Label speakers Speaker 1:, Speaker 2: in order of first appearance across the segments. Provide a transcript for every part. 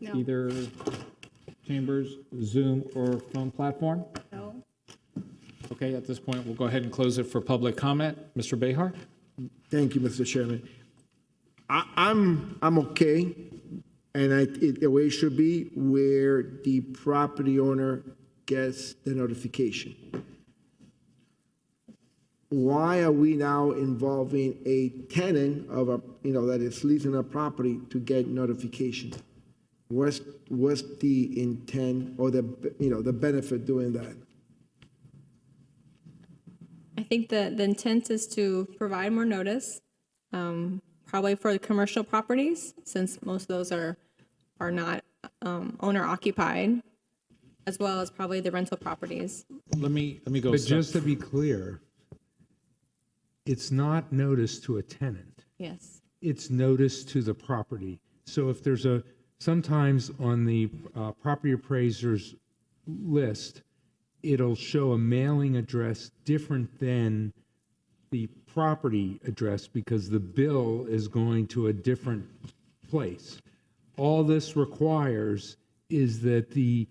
Speaker 1: No.
Speaker 2: either chambers, Zoom, or phone platform?
Speaker 1: No.
Speaker 2: Okay, at this point, we'll go ahead and close it for public comment. Mr. Behar?
Speaker 3: Thank you, Mr. Chairman. I, I'm, I'm okay, and I, it, the way it should be, where the property owner gets the notification. Why are we now involving a tenant of a, you know, that is leasing a property to get notification? What's, what's the intent or the, you know, the benefit doing that?
Speaker 4: I think the, the intent is to provide more notice, um, probably for the commercial properties, since most of those are, are not, um, owner occupied, as well as probably the rental properties.
Speaker 2: Let me, let me go. a
Speaker 5: But
Speaker 2: step-
Speaker 5: just to be clear, it's not notice to a tenant.
Speaker 4: Yes.
Speaker 5: It's notice to the property. So if there's a, sometimes on the uh, property appraiser's list, it'll show a mailing address different than the property address because the bill is going to a different place. All this requires is that the,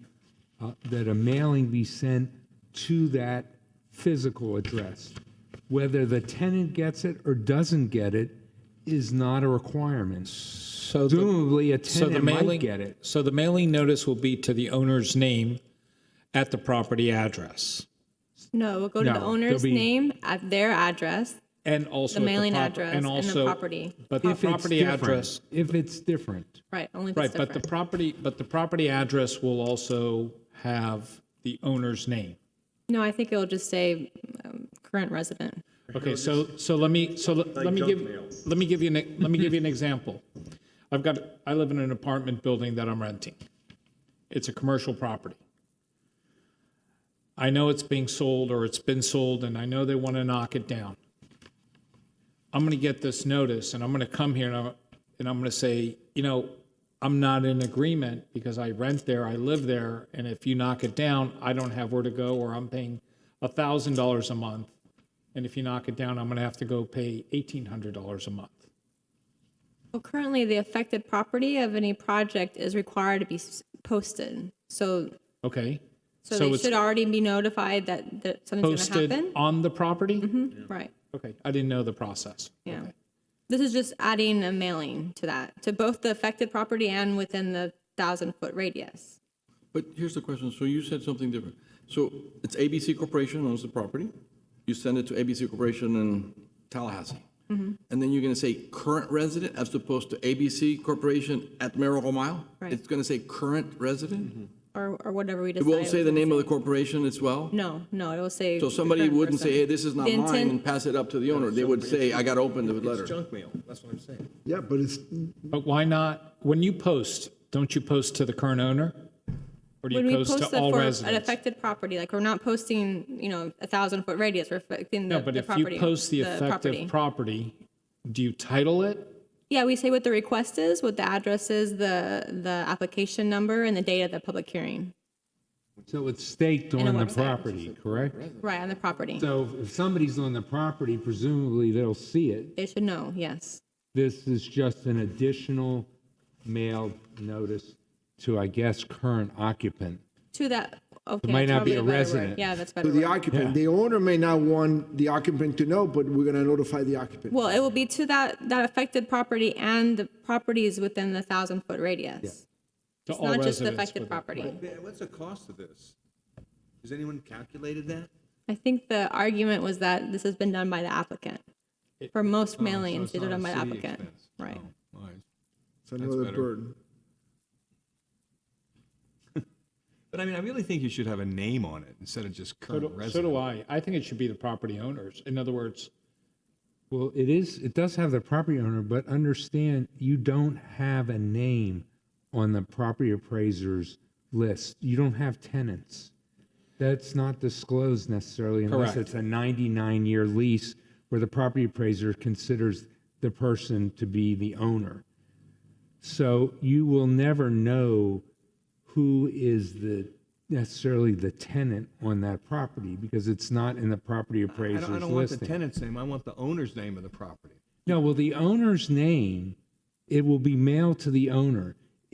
Speaker 5: uh, that a mailing be sent to that physical address. Whether the tenant gets it or doesn't get it is not a requirement.
Speaker 2: So the-
Speaker 5: Presumably, a
Speaker 2: so the
Speaker 5: tenant might
Speaker 2: mailing-
Speaker 5: get it.
Speaker 2: So the mailing notice will be to the owner's name at the property address
Speaker 4: No, we'll go to
Speaker 5: No,
Speaker 4: the
Speaker 5: there'll
Speaker 4: owner's
Speaker 5: be-
Speaker 4: name, at their address,
Speaker 2: and also. at
Speaker 4: the mailing
Speaker 2: prop-
Speaker 4: address, and the
Speaker 2: also-
Speaker 4: property.
Speaker 2: But the
Speaker 5: If it's
Speaker 2: property
Speaker 5: different-
Speaker 2: address.
Speaker 5: If it's different.
Speaker 4: Right, only if it's
Speaker 2: Right, but the
Speaker 4: different.
Speaker 2: property, but the property address will also have the owner's name.
Speaker 4: No, I think it'll just say, um, current resident.
Speaker 2: Okay, so, so let me, so let let me give, let me give you, an e-, let me give you an example. I've got, I live in an apartment building that I'm renting. It's a commercial property. I know it's being sold or it's been sold and I know they want to knock it down. I'm going to get this notice and I'm going to come here and I'm, and I'm going to say, you know, I'm not in agreement because I rent there, I live there, and if you knock it down, I don't have where to go or I'm paying $1,000 a month. And if you knock it down, I'm going to have to go pay $1,800 a month.
Speaker 4: Well, currently, the affected property of any project is required to be s- posted. So,
Speaker 2: Okay?
Speaker 4: so
Speaker 2: So
Speaker 4: they
Speaker 2: it's
Speaker 4: should already be notified that, that something's gonna
Speaker 2: Posted
Speaker 4: happen.
Speaker 2: on the property?
Speaker 4: Right,
Speaker 2: Okay, I didn't know the process.
Speaker 4: yeah. This is just adding a mailing to that, to both the affected property and within the thousand foot radius.
Speaker 6: But here's the question, so you said something different. So it's ABC Corporation owns the property, you send it to ABC Corporation in Tallahassee.
Speaker 4: Mm-hmm.
Speaker 6: And then you're gonna say current resident as opposed to ABC Corporation at Miracle Mile?
Speaker 4: Right.
Speaker 6: It's gonna say current resident?
Speaker 4: Or, or whatever we
Speaker 6: It
Speaker 4: decide.
Speaker 6: won't say the
Speaker 4: was
Speaker 6: name of
Speaker 4: gonna
Speaker 6: the corporation as well?
Speaker 4: say. No, no, it'll say.
Speaker 6: So somebody
Speaker 4: current
Speaker 6: wouldn't say,
Speaker 4: person.
Speaker 6: hey, this is not
Speaker 4: The
Speaker 6: mine, and
Speaker 4: intent-
Speaker 6: pass it up to the owner. They would say, I gotta open the letter.
Speaker 3: Yeah, but it's,
Speaker 2: But why not, when you post, don't you post to the current owner? Or do
Speaker 4: When
Speaker 2: you
Speaker 4: we
Speaker 2: post
Speaker 4: post
Speaker 2: to
Speaker 4: that
Speaker 2: all
Speaker 4: for an
Speaker 2: residents?
Speaker 4: affected property, like, we're not posting, you know, a thousand foot radius, we're affecting the
Speaker 2: No,
Speaker 4: the
Speaker 2: but
Speaker 4: property.
Speaker 2: if you post the
Speaker 4: property.
Speaker 2: effective property, do you title it?
Speaker 4: Yeah, we say what the request is, what the address is, the, the application number, and the date of the public hearing.
Speaker 5: So it's staked
Speaker 4: a
Speaker 5: on the
Speaker 4: website.
Speaker 5: property, correct?
Speaker 4: Right, on the property.
Speaker 5: So if somebody's on the property, presumably they'll see it.
Speaker 4: They should know, yes.
Speaker 5: This is just an additional mailed notice to, I guess, current occupant.
Speaker 4: To that, okay.
Speaker 5: might
Speaker 4: that's
Speaker 5: not
Speaker 4: probably
Speaker 5: be a
Speaker 4: better word.
Speaker 5: resident.
Speaker 4: Yeah, that's
Speaker 3: to
Speaker 4: better.
Speaker 3: the
Speaker 4: word.
Speaker 3: occupant. The owner may not want the occupant to know, but we're gonna notify the occupant.
Speaker 4: Well, it will be to that, that affected property and the properties within the thousand foot radius.
Speaker 2: To
Speaker 4: It's
Speaker 2: all
Speaker 4: not
Speaker 2: residents?
Speaker 4: just the affected
Speaker 2: with it?
Speaker 4: property.
Speaker 7: Yeah, What's the cost of this? Has anyone calculated
Speaker 4: Oh,
Speaker 7: that?
Speaker 4: I think the argument was that this has been done by the applicant. For most mailings, it's done by the applicant. Right.
Speaker 7: Oh.
Speaker 3: It's another burden.
Speaker 7: But I mean, I really think you should have a name on it instead of just
Speaker 2: So
Speaker 7: current
Speaker 2: do-
Speaker 7: resident.
Speaker 2: So do I. I think it should be the property owners. In other words,
Speaker 5: Well, it is, it does have the property owner, but understand you don't have a name on the property appraiser's list. You don't have tenants. That's not disclosed necessarily unless
Speaker 2: Correct.
Speaker 5: it's a 99-year lease where the property appraiser considers the person to be the owner. So you will never know who is the, necessarily the tenant on that property because it's not in the property
Speaker 7: I
Speaker 5: appraiser's
Speaker 7: don't,
Speaker 5: listing.
Speaker 7: I don't want the tenant's name, I want the owner's name of the property.
Speaker 5: No, well, the owner's name, it will be mailed to the owner.